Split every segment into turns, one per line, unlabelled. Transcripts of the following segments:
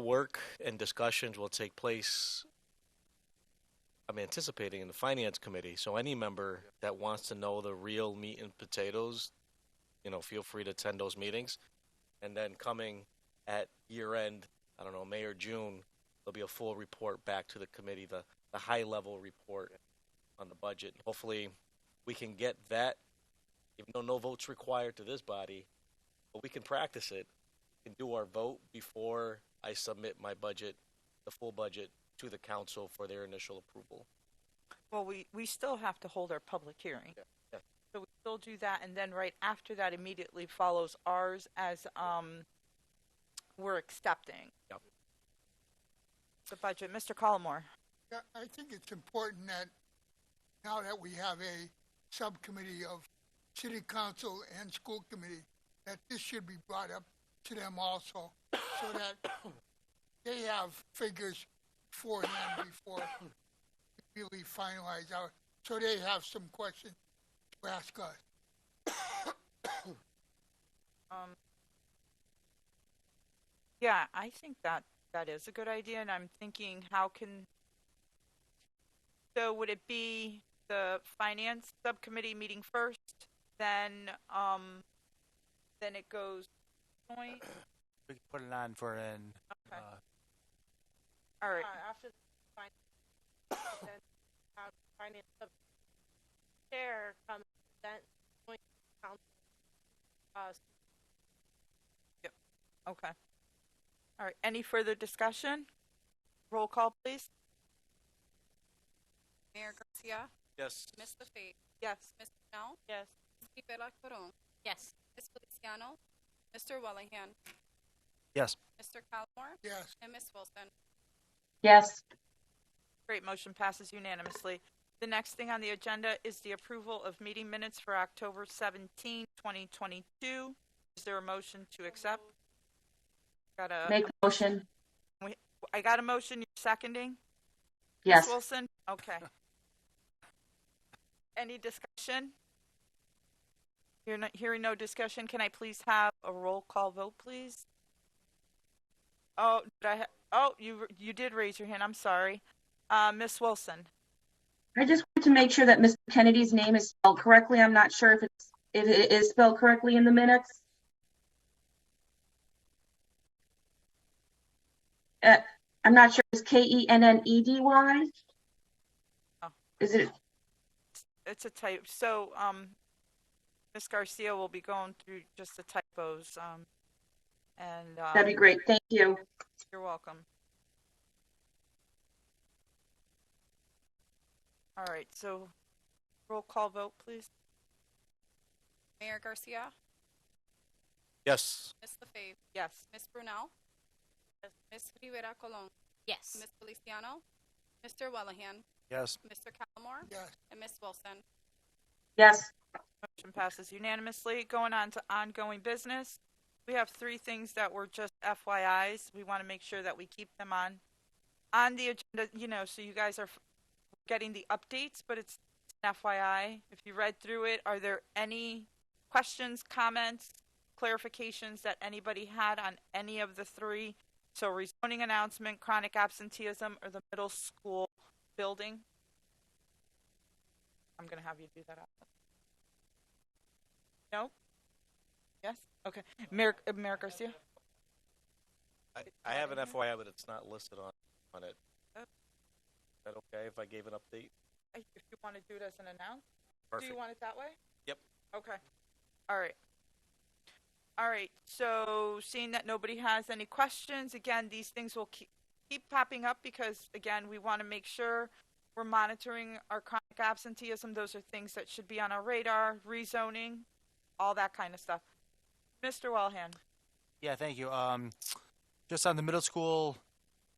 Work and discussions will take place, I'm anticipating, in the Finance Committee. So any member that wants to know the real meat and potatoes, you know, feel free to attend those meetings. And then coming at year end, I don't know, May or June, there'll be a full report back to the committee, the, the high level report on the budget. Hopefully, we can get that, even though no vote's required to this body, but we can practice it can do our vote before I submit my budget, the full budget, to the council for their initial approval.
Well, we, we still have to hold our public hearing.
Yeah, yeah.
So we still do that, and then right after that immediately follows ours as, um, we're accepting.
Yep.
The budget, Mr. Collmore,
Yeah, I think it's important that now that we have a subcommittee of city council and school committee, that this should be brought up to them also, so that they have figures beforehand before we really finalize out, so they have some questions to ask us.
um, yeah, I think that, that is a good idea, and I'm thinking, how can, so would it be the finance subcommittee meeting first, then, um, then it goes joint?
We can put it on for an.
Okay.
Uh,
All right.
Uh, after the finance, then have finance sub chair come present joint council. Uh,
Okay. All right, any further discussion? Roll call, please.
Mayor Garcia,
Yes.
Ms. LaFave,
Yes.
Ms. Now,
Yes.
Ms. Rivera Colon,
yes,
Ms. Feliciano, Mr. Willingham,
yes.
Mr. Calmore,
Yes,
and Ms. Wilson.
Yes,
Great, motion passes unanimously. The next thing on the agenda is the approval of meeting minutes for October 17, 2022. Is there a motion to accept? Got a,
make the motion.
I got a motion, you're seconding? Ms.
Yes,
Wilson? Okay. Any discussion? Hearing no- Hearing no discussion, can I please have a roll call vote, please? Oh, did I, ha- oh, you, you did raise your hand, I'm sorry. Uh, Ms. Wilson?
I just want to make sure that Mr. Kennedy's name is spelled correctly. I'm not sure if it's, if it is spelled correctly in the minutes. Uh, I'm not sure, it's K E N N E D Y?
Oh.
Is it,
It's a type, so, um, Ms. Garcia will be going through just the typos, um, and, um,
that'd be great, thank you.
You're welcome. All right, so roll call vote, please.
Mayor Garcia,
Yes.
Ms. LaFave,
Yes.
Ms. Brunel, Ms. Rivera Colon,
yes.
Ms. Feliciano, Mr. Willingham,
Yes.
Mr. Calmore,
yes.
and Ms. Wilson.
Yes,
Motion passes unanimously. Going on to ongoing business. We have three things that were just FYIs. We want to make sure that we keep them on, on the agenda, you know, so you guys are f- getting the updates, but it's an FYI. If you read through it, are there any questions, comments, clarifications that anybody had on any of the three? So rezoning announcement, chronic absenteeism, or the middle school building? I'm going to have you do that. No? Yes? Okay. Mayor, uh, Mayor Garcia?
I, I have an FYI, but it's not listed on, on it.
Oh.
Is that okay if I gave an update?
If you want to do it as an announce, do
Perfect.
you want it that way?
Yep.
Okay. All right. All right. So seeing that nobody has any questions, again, these things will keep, keep popping up because, again, we want to make sure we're monitoring our chronic absenteeism. Those are things that should be on our radar, rezoning, all that kind of stuff. Mr. Wellhand?
Yeah, thank you. Um, just on the middle school,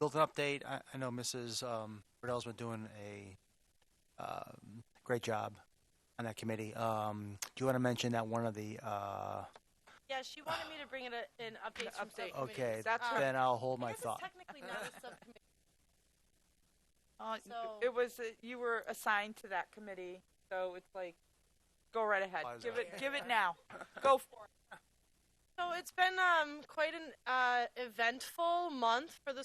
built an update. I, I know Mrs. Um, Riddell's been doing a um, great job on that committee. Um, do you want to mention that one of the? Uh,
Yeah, she wanted me to bring uh, in, a- an update from
update.
subcommittee.
okay,
That's
Um,
her-
then I'll hold my
This is
thought.
technically not a subcommittee.
Uh,
So-
it was uh, you were assigned to that committee, so it's like, go right ahead,
Why is
give
that?
it, give it now, go for it.
So it's been um, quite an uh, eventful month for the school